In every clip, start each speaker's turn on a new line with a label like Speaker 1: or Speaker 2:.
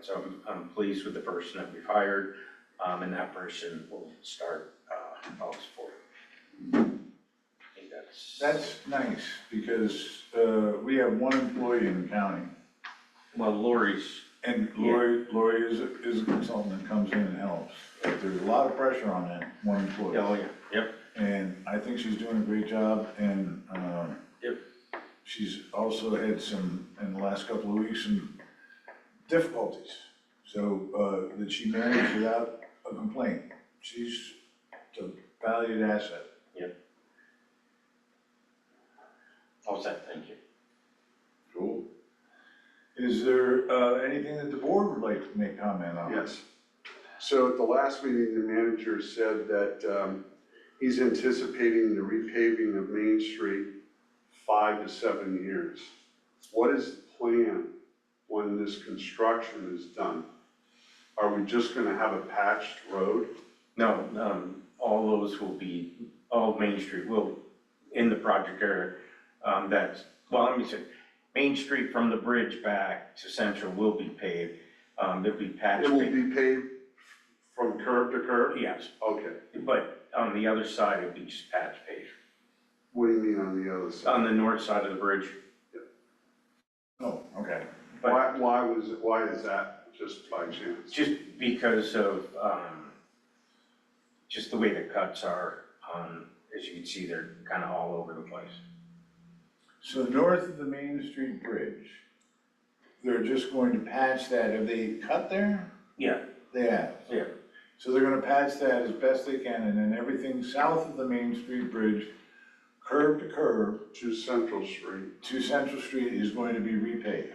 Speaker 1: so I'm, I'm pleased with the person that we've hired, um, and that person will start, uh, August fourth. I think that's.
Speaker 2: That's nice, because, uh, we have one employee in the county.
Speaker 1: Well, Lori's,
Speaker 2: And Lori, Lori is, is a consultant that comes in and helps. But there's a lot of pressure on that one employee.
Speaker 1: oh, yeah, yep,
Speaker 2: And I think she's doing a great job and, um,
Speaker 1: Yep.
Speaker 2: she's also had some, in the last couple of weeks, some difficulties. So, uh, that she managed without a complaint. She's a valued asset.
Speaker 1: all set, thank you.
Speaker 2: Cool. Is there, uh, anything that the board would like to make comment on?
Speaker 3: Yes. So at the last meeting, the manager said that um, he's anticipating the repaving of Main Street five to seven years. What is the plan when this construction is done? Are we just gonna have a patched road?
Speaker 1: No, um, all those will be, all Main Street will, in the project area, um, that's, well, let me say, Main Street from the bridge back to Central will be paved, um, there'll be patch.
Speaker 3: It will
Speaker 1: paved-
Speaker 3: be paved from curb to curb?
Speaker 1: Yes,
Speaker 3: Okay,
Speaker 1: but on the other side, it'll be just patch paved,
Speaker 3: what do you mean on the other side?
Speaker 1: on the north side of the bridge,
Speaker 2: Oh, okay.
Speaker 1: but-
Speaker 3: Why, why was, it- why is that just by chance?
Speaker 1: just because of, um, just the way the cuts are, um, as you can see, they're kind of all over the place.
Speaker 2: So north of the Main Street Bridge, they're just going to patch that, have they cut there?
Speaker 1: Yeah,
Speaker 2: They have.
Speaker 1: yeah,
Speaker 2: So they're gonna patch that as best they can, and then everything south of the Main Street Bridge, curb to curb,
Speaker 3: To Central Street,
Speaker 2: to Central Street is going to be repaved.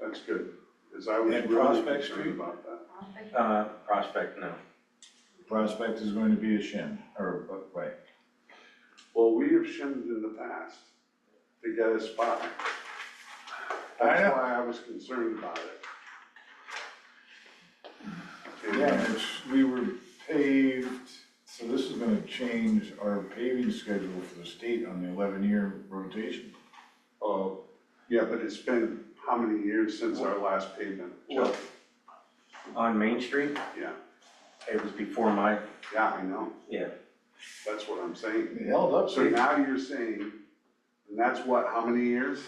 Speaker 3: that's good, because I was
Speaker 2: And
Speaker 3: really
Speaker 2: Prospect Street?
Speaker 3: concerned about that.
Speaker 1: uh, Prospect, no,
Speaker 2: Prospect is going to be a shim, or, uh, right.
Speaker 3: Well, we have shimmed in the past to get us by.
Speaker 2: I know.
Speaker 3: That's why I was concerned about it. And
Speaker 2: Yeah, it's, we were paved, so this is gonna change our paving schedule for the state on the eleven-year rotation.
Speaker 3: Oh, yeah, but it's been how many years since our last pavement?
Speaker 1: Well- on Main Street,
Speaker 3: Yeah,
Speaker 1: it was before my,
Speaker 3: yeah, I know,
Speaker 1: yeah,
Speaker 3: that's what I'm saying.
Speaker 2: It held up,
Speaker 3: So
Speaker 2: so
Speaker 3: now you're saying, and that's what, how many years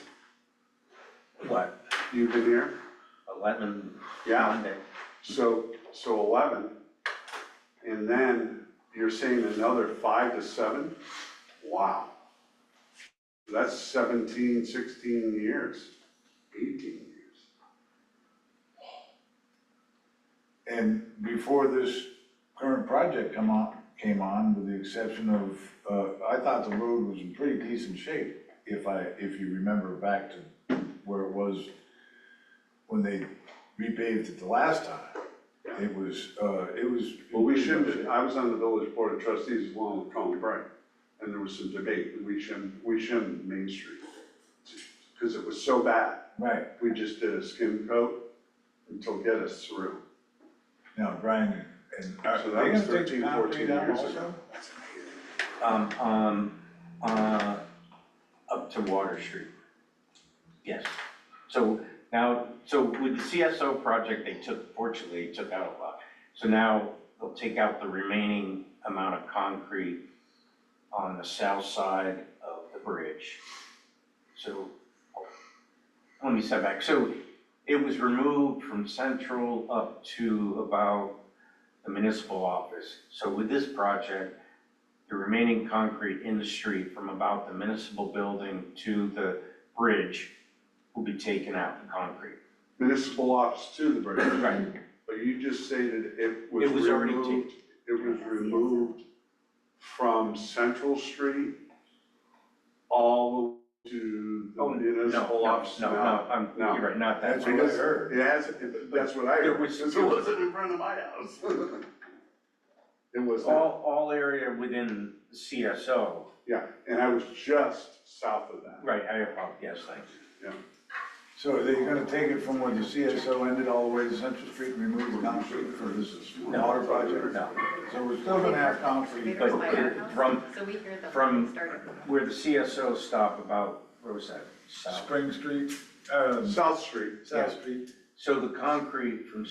Speaker 1: what,
Speaker 3: you've been here?
Speaker 1: eleven,
Speaker 3: Yeah,
Speaker 1: Monday?
Speaker 3: So, so eleven, and then you're saying another five to seven? Wow. That's 17, 16 years, eighteen years.
Speaker 2: And before this current project come on, came on, with the exception of, uh, I thought the road was in pretty decent shape, if I, if you remember back to where it was when they repaved it the last time. It was, uh, it was.
Speaker 3: Well, we shouldn't, I was on the village board of trustees along with Colin Bright, and there was some debate, and we shouldn't, we shouldn't Main Street. Because it was so bad,
Speaker 2: Right,
Speaker 3: we just did a skim coat until get us through.
Speaker 2: now Brian, and are
Speaker 3: So
Speaker 2: Uh, they gonna
Speaker 3: that was
Speaker 2: take
Speaker 3: 13,
Speaker 2: the concrete
Speaker 3: 14
Speaker 2: down
Speaker 3: years
Speaker 2: also?
Speaker 3: ago. That's amazing.
Speaker 1: um, um, uh, up to Water Street. Yes, so now, so with the CSO project, they took, fortunately, they took out a lot. So now they'll take out the remaining amount of concrete on the south side of the bridge. So, let me step back, so it was removed from central up to about the municipal office. So with this project, the remaining concrete in the street from about the municipal building to the bridge will be taken out, the concrete.
Speaker 3: Municipal office to the bridge.
Speaker 1: Right.
Speaker 3: But you just stated it was
Speaker 1: It was already
Speaker 3: removed, it was removed from Central Street all to the
Speaker 1: Oh, no,
Speaker 3: municipal office
Speaker 1: No, no,
Speaker 3: now.
Speaker 1: no, I'm,
Speaker 3: No.
Speaker 1: you're right, not that.
Speaker 2: That's
Speaker 1: way.
Speaker 2: what I heard.
Speaker 3: It has, it- that's what I
Speaker 1: There
Speaker 3: heard,
Speaker 1: was-
Speaker 3: because it wasn't in front of my house. It was, not.
Speaker 1: All, all area within CSO,
Speaker 3: yeah, and I was just south of that.
Speaker 1: right, I apologize, yes, thank you.
Speaker 2: So are they gonna take it from where the CSO ended all the way to Central Street and remove the concrete for this water project?
Speaker 1: No,
Speaker 2: So we're still gonna have concrete,
Speaker 1: But
Speaker 2: but
Speaker 1: it- from,
Speaker 4: So we hear the
Speaker 1: from-
Speaker 4: whole started.
Speaker 1: where the CSO stop about, where was that? South.
Speaker 2: Spring Street, um,
Speaker 3: South Street.
Speaker 2: South Street.
Speaker 1: So the concrete from